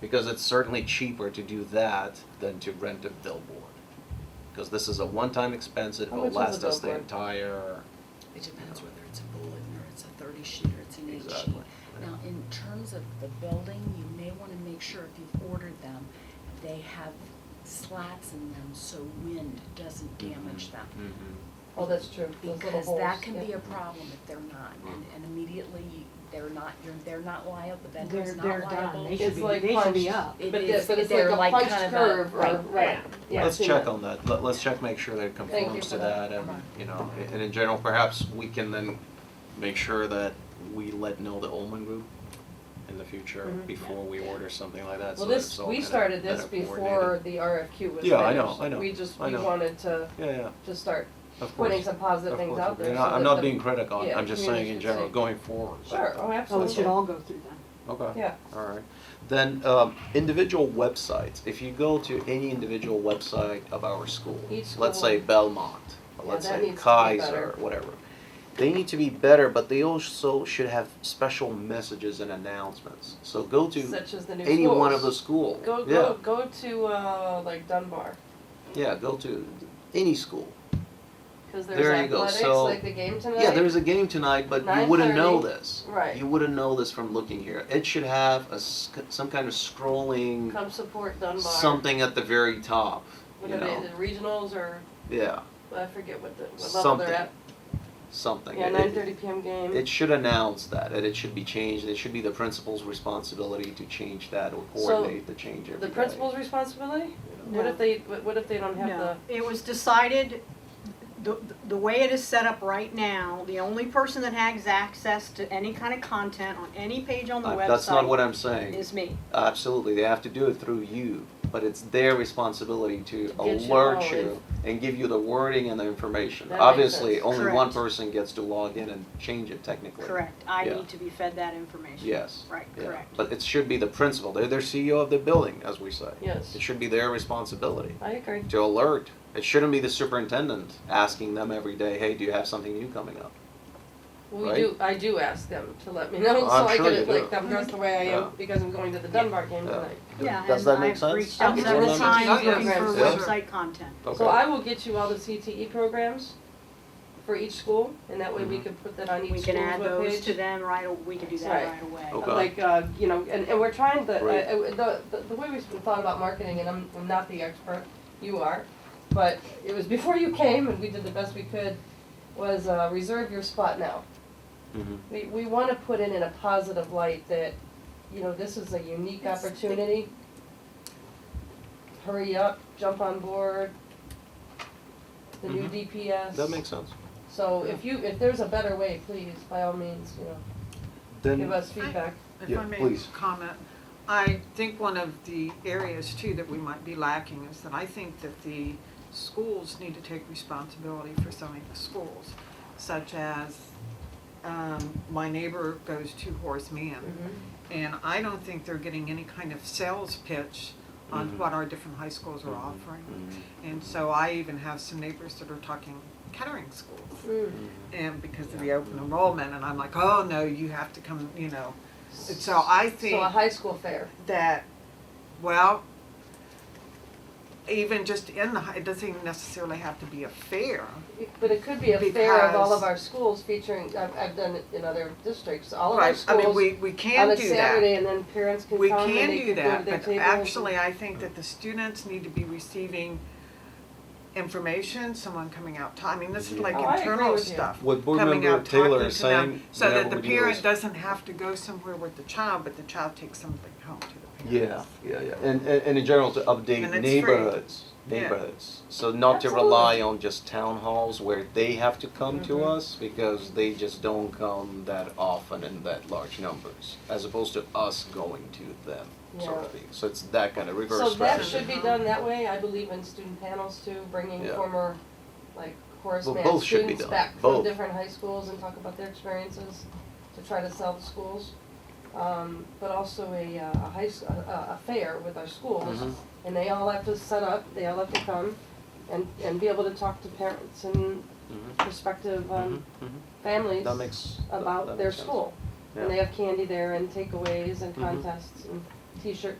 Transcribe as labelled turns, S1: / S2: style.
S1: because it's certainly cheaper to do that than to rent a billboard. Because this is a one-time expense, it
S2: How
S1: will
S2: much is
S1: last
S2: a
S1: us the
S2: billboard?
S1: entire,
S3: It depends whether it's a bulletin or it's a thirty sheet or it's an eight sheet.
S1: Exactly.
S3: Now, in terms of the building, you may wanna make sure if you've ordered them, they have slats in them so wind doesn't
S1: Mm-hmm.
S3: damage them.
S2: Oh, that's true. Those little
S3: Because that
S2: holes,
S3: can
S2: yeah.
S3: be a problem if they're not, and, and immediately, they're not, you're, they're not liable, the vendor's
S4: They're,
S3: not
S4: they're
S3: liable.
S4: done, they
S2: It's
S4: should be,
S2: like
S4: they should be
S2: punched.
S4: up.
S3: It
S2: But
S3: is-
S2: the- but it's
S3: they're
S2: like a
S3: like
S2: punched
S3: kind of a-
S2: curve or,
S3: right,
S2: right, yeah.
S1: let's
S2: see
S1: check
S2: that.
S1: on that, let, let's check, make sure that it
S2: Thank you
S1: conforms
S2: for
S1: to
S2: that.
S1: that, and, you know, a- and in general, perhaps we can then make sure that we let know the Ullman Group in the future
S2: Mhm.
S1: before we order something like that, so
S2: Well,
S1: that it's
S2: this,
S1: all
S2: we
S1: kinda
S2: started this
S1: better
S2: before
S1: coordinated.
S2: the RFQ was finished.
S1: Yeah, I know, I know,
S2: We just,
S1: I
S2: we
S1: know.
S2: wanted to,
S1: Yeah, yeah,
S2: to start
S1: of course.
S2: putting some positive
S1: Of
S2: things
S1: course,
S2: out there.
S1: and
S2: so
S1: I- I'm
S2: that
S1: not
S2: the-
S1: being critical,
S2: yeah,
S1: I'm just saying in
S2: community's
S1: general,
S2: safe.
S1: going forward.
S2: Sure, oh,
S4: Oh, it
S2: absolutely.
S4: should all go through them.
S1: Okay,
S2: Yeah,
S1: all right. Then, um, individual websites, if you go to any individual website of our school,
S2: Each
S1: let's
S2: school.
S1: say Belmont, or
S2: Yeah,
S1: let's
S2: that
S1: say
S2: needs to be
S1: Kaiser,
S2: better.
S1: whatever. They need to be better, but they also should have special messages and announcements. So go to
S2: such as the new schools.
S1: any one of the school,
S2: Go,
S1: yeah,
S2: go, go to, uh, like Dunbar,
S1: yeah, go to any school.
S2: cause
S1: There you
S2: there's
S1: go,
S2: athletics,
S1: so-
S2: like the game tonight.
S1: Yeah, there is a game tonight, but you wouldn't know
S2: 9:30.
S1: this.
S2: Right.
S1: You wouldn't know this from looking here. It should have a sc- some kind of scrolling
S2: Come support Dunbar.
S1: something at the very top.
S2: What
S1: You
S2: are they,
S1: know,
S2: the regionals or,
S1: yeah,
S2: I forget what the, what level
S1: something,
S2: they're at.
S1: something.
S2: Yeah,
S1: It-
S2: nine thirty PM game.
S1: It, it should announce that, and it should be changed. It should be the principal's responsibility to change that or
S2: So,
S1: coordinate the change every
S2: The
S1: day,
S2: principal's responsibility?
S1: you know.
S2: What if they, what what if they don't have the,
S4: No, it was decided, the, the way it is set up right now, the only person that has access to any kind of content on any page on the
S1: I- Uh, that's not what
S4: website
S1: I'm saying.
S4: is me.
S1: Absolutely, they have to do it through you, but it's their responsibility to
S2: To get you
S1: alert
S2: all
S1: you and give you the wording and the information.
S2: That makes
S1: Obviously,
S2: sense.
S1: only one
S4: Correct.
S1: person gets to log in and change it technically.
S4: Correct, I
S1: Yeah.
S4: need to be fed that information.
S1: Yes.
S4: Right,
S1: yeah.
S4: correct.
S1: But it should be the principal, they're their CEO of the building, as we say.
S2: yes,
S1: It should be their responsibility
S2: I agree.
S1: to alert. It shouldn't be the superintendent asking them every day, hey, do you have something new coming up?
S2: We
S1: Right?
S2: do, I do ask them to let me know,
S1: Well,
S2: so
S1: I'm
S2: I
S1: sure
S2: get
S1: you
S2: it,
S1: do.
S2: like, that- that's the way I
S1: Yeah.
S2: am, because I'm going to the Dunbar game
S1: Yeah.
S2: tonight.
S4: Yeah,
S1: Does
S4: and
S1: that make
S4: I've
S1: sense?
S4: reached out
S2: Okay.
S4: several
S2: Yeah.
S4: times
S2: Yeah.
S4: looking for
S2: Yeah.
S4: website content.
S1: Okay.
S2: So I will get you all the CTE programs for each school, and that way we
S1: Mhm.
S2: can put that on each
S4: Mm-hmm. We
S2: school's webpage.
S4: can add those to them right, aw- we can do that
S2: Right.
S4: right away.
S1: Okay.
S2: Like, uh, you know, and, and we're trying to,
S1: Oh, Right.
S2: uh, uh, the, the, the way we thought about marketing, and I'm, I'm not the expert, you are, but it was before you came, and we did the best we could, was, uh, reserve your spot now.
S1: Mhm.
S2: We, we wanna put it in a positive light that, you know, this is a unique
S3: It's the-
S2: opportunity. Hurry up, jump on board, the new
S1: Mhm.
S2: DPS.
S1: That makes sense.
S2: So if you, if there's a better way, please, by all means, you know,
S1: Then.
S2: give us feedback.
S5: If
S1: Yeah,
S5: I may
S1: please.
S5: comment, I think one of the areas too that we might be lacking is that I think that the schools need to take responsibility for some of the schools, such as, um, my neighbor goes to Horace Mann,
S2: Mm-hmm.
S5: and I don't think they're getting any kind of sales pitch
S1: Mhm.
S5: on what our different high schools are offering.
S1: Mhm.
S5: And so I even have some neighbors that are talking catering schools,
S2: Mm.
S5: and because of the open enrollment, and I'm like, oh, no, you have to come, you know. So I think
S2: So a high school fair.
S5: that, well, even just in the, hi- it doesn't even necessarily have to be a fair.
S2: But it could be a fair of all
S5: Because-
S2: of our schools featuring, I've, I've done it in other districts, all of our
S5: Right, I
S2: schools
S5: mean, we, we
S2: on
S5: can
S2: a
S5: do that.
S2: Saturday and then parents can
S5: We
S2: come and
S5: can
S2: they
S5: do
S2: can go to
S5: that,
S2: their
S5: but
S2: tables.
S5: actually, I think that the students need to be receiving information, someone coming out, ta- I mean, this is like
S2: Oh, I agree
S5: internal
S2: with you.
S5: stuff.
S1: What board
S5: coming
S1: member
S5: out, talking
S1: Taylor is
S5: to them,
S1: saying,
S5: So
S1: whenever
S5: that the
S1: we do this-
S5: parent doesn't have to go somewhere with the child, but the child takes something home to the parent.
S1: Yeah, yeah, yeah. And, and, and in general, to update
S5: And it's free.
S1: neighborhoods,
S5: Yeah.
S1: neighborhoods. So not to rely on just town halls where they have to come to
S5: Mm-hmm.
S2: Mhm.
S1: us because they just don't come that often in that large numbers, as opposed to us going to them, sort of
S2: Yeah.
S1: thing. So it's that kind of
S2: So
S1: reverse
S2: that
S1: strategy.
S2: should be done that way, I believe in student panels too, bringing
S1: Yeah.
S2: former, like, Horace
S1: Well,
S2: Mann
S1: both should be
S2: students
S1: done,
S2: back from
S1: both.
S2: different high schools and talk about their experiences to try to sell the schools. Um, but also a, uh, a high, s- a, a- a fair with our schools,
S1: Mhm.
S2: and they all have to set up, they all have to come and, and be able to talk to parents and
S1: Mhm,
S2: prospective, um,
S1: mhm, mhm.
S2: families
S1: That makes, that that makes sense.
S2: about their school.
S1: Yeah.
S2: And they have candy there and takeaways and
S1: Mhm.
S2: contests and t-shirt